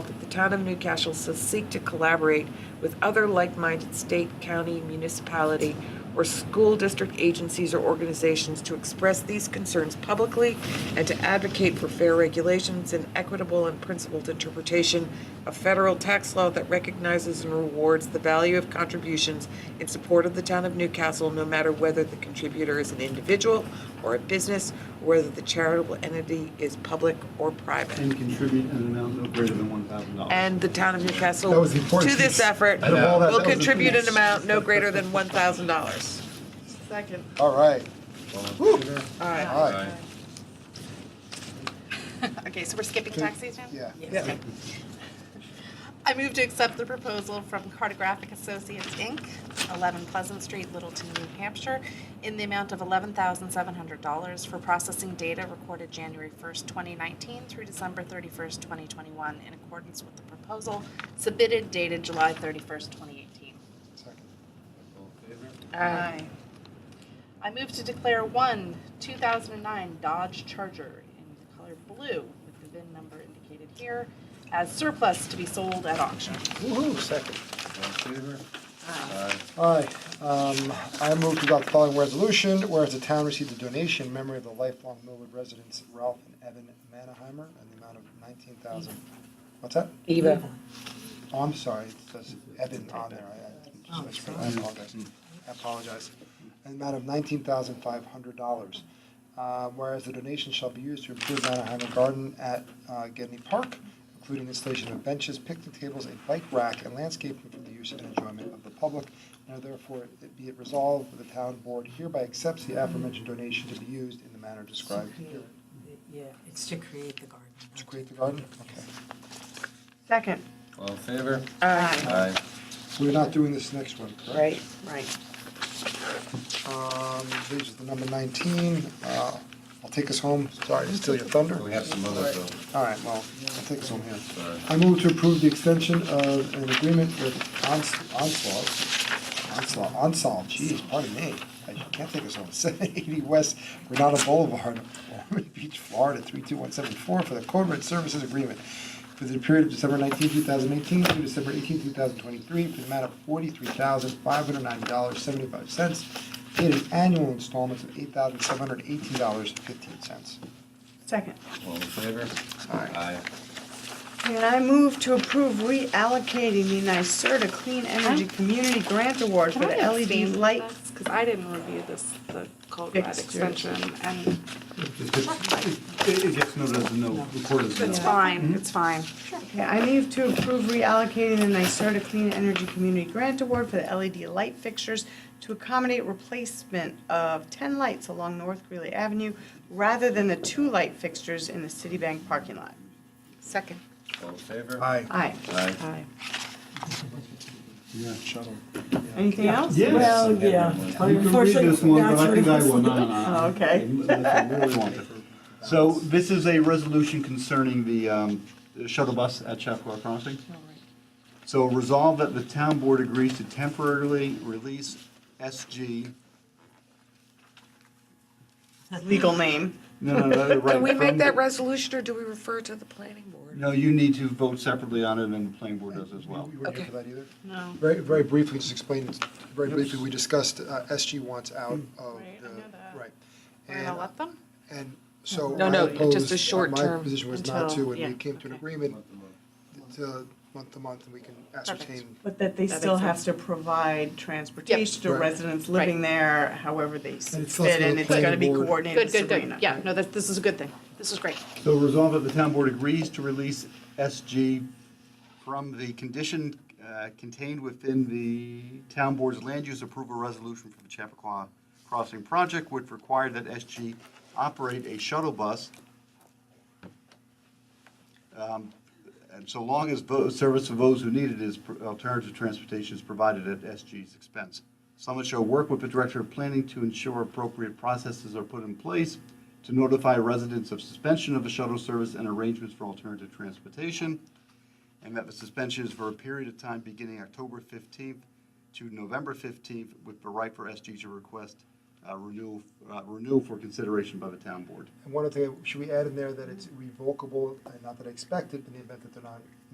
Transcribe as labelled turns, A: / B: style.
A: Town of Newcastle shall seek to collaborate with other like-minded state, county, municipality, or school district agencies or organizations to express these concerns publicly and to advocate for fair regulations and equitable and principled interpretation of federal tax law that recognizes and rewards the value of contributions in support of the town of Newcastle, no matter whether the contributor is an individual or a business, or whether the charitable entity is public or private.
B: and contribute an amount no greater than one thousand dollars.
A: And the town of Newcastle,
C: That was the
A: to
C: important
A: this
C: piece.
A: effort,
C: Out of
A: will
C: all that, that was the
A: contribute an
C: piece.
A: amount no greater than $1,000. Second.
C: All right. Woo.
A: All right.
C: All right.
D: Okay, so we're skipping taxis now?
C: Yeah.
D: Okay. I move to accept the proposal from Cartographic Associates, Inc., 11 Pleasant Street, Littleton, New Hampshire, in the amount of $11,700 for processing data recorded January 1st, 2019 through December 31st, 2021, in accordance with the proposal submitted dated July 31st, 2018.
C: Second.
D: Aye. I move to declare one 2009 Dodge Charger in the color blue with the VIN number indicated here as surplus to be sold at auction.
C: Woo-hoo, second.
B: All in favor? Aye.
C: All right, um, I move to adopt the following resolution, whereas the town received a donation in memory of the lifelong Millwood residents Ralph and Evan Manheimer in the amount of nineteen thousand. What's that?
A: Eva.
C: Oh, I'm sorry, it says Evan on there, I,
A: Oh,
C: I just- I apologize, I apologize. An amount of nineteen thousand five hundred dollars. Uh, whereas the donation shall be used to improve Manheimer Garden at, uh, Gedney Park, including installation of benches, picnic tables, a bike rack, and landscaping for the use and enjoyment of the public. Now therefore, it be it resolved, that the town board hereby accepts the aforementioned donation to be used in the manner described
E: To
C: here.
E: create the- Yeah, it's to create the garden.
C: To create the garden, okay.
A: Second.
B: All in favor?
A: Aye.
B: Aye.
C: So we're not doing this next one, correct?
A: Right, right.
C: Um, this is the number nineteen, uh, I'll take us home, sorry to steal your thunder.
B: We have some other bills.
C: All right, well, I'll take us home here.
B: Sorry.
C: I move to approve the extension of an agreement with Ons- Onslaught, Onslaught, Onsolve, geez, pardon me. I can't take us home, seven eighty West Renata Boulevard, Ormond Beach, Florida, three two one seven four for the Code Red Services Agreement for the period of December nineteenth, two thousand eighteen through December eighteenth, two thousand twenty-three for the amount of forty-three thousand, five hundred nine dollars, seventy-five cents. Paid in annual installments of eight thousand, seven hundred eighteen dollars, fifteen cents.
F: Second.
B: All in favor?
C: Aye.
F: And I move to approve reallocating the NYSERDA Clean Energy Community Grant Award for
D: Can
F: the
D: I
F: LED light.
D: Because I didn't review this, the Cold Red
F: Fixtures.
D: extension, and
B: It gets- it gets noted as a no, recorded as a
D: it's
B: no.
D: fine, it's fine.
F: Okay, I move to approve reallocating the NYSERDA Clean Energy Community Grant Award for the LED light fixtures to accommodate replacement of ten lights along North Greeley Avenue rather than the two light fixtures in the Citibank parking lot.
D: Second.
B: All in favor?
C: Aye.
F: Aye.
B: Aye.
F: Aye.
B: Yeah, shut them.
F: Anything else?
G: Well, yeah.
B: You can read this one, but I think I will not.
F: Oh, okay.
B: I really want it. So this is a resolution concerning the um, shuttle bus at Chapua Crossing. So resolve that the town board agrees to temporarily release SG,
F: Legal name.
B: no, no, no, right.
A: Can we
B: from
A: make that
B: the-
A: resolution, or do we refer to the planning board?
B: No, you need to vote separately on it, and the planning board does as well.
C: We Oh, weren't
A: Okay.
C: here for that either?
D: No.
C: Very, very briefly, just explain, very briefly, we discussed uh, SG wants out of
D: Right, I
C: the,
D: know that.
C: right.
D: We're gonna
C: And,
D: let them?
C: and so
A: No,
C: I
A: no, just a
C: opposed-
A: short term
C: My position was not
A: until-
C: to, and
A: yeah,
C: we came to an
D: okay.
C: agreement to month to month, and we can ascertain.
F: But that they
A: That
F: still
A: makes
F: have to provide transportation to
C: Right.
F: residents living there, however they see
C: And it's also
F: fit, and
C: the
F: it's gonna
C: planning
F: be
C: board.
F: coordinated
D: Good,
F: with Sabrina.
D: good, good. Yeah, no, that, this is a good thing. This is great.
B: So resolve that the town board agrees to release SG from the condition uh, contained within the town board's land use approval resolution for the Chappaqua Crossing project, which required that SG operate a shuttle bus um, and so long as vo- service of those who need it is, pr- alternative transportation is provided at SG's expense. Summit shall work with the Director of Planning to ensure appropriate processes are put in place to notify residents of suspension of the shuttle service and arrangements for alternative transportation, and that the suspension is for a period of time beginning October 15th to November 15th, with the right for SG to request uh, renewal, uh, renewal for consideration by the town board.
C: And one other thing, should we add in there that it's revocable, and not that I expect it, in the event that they're not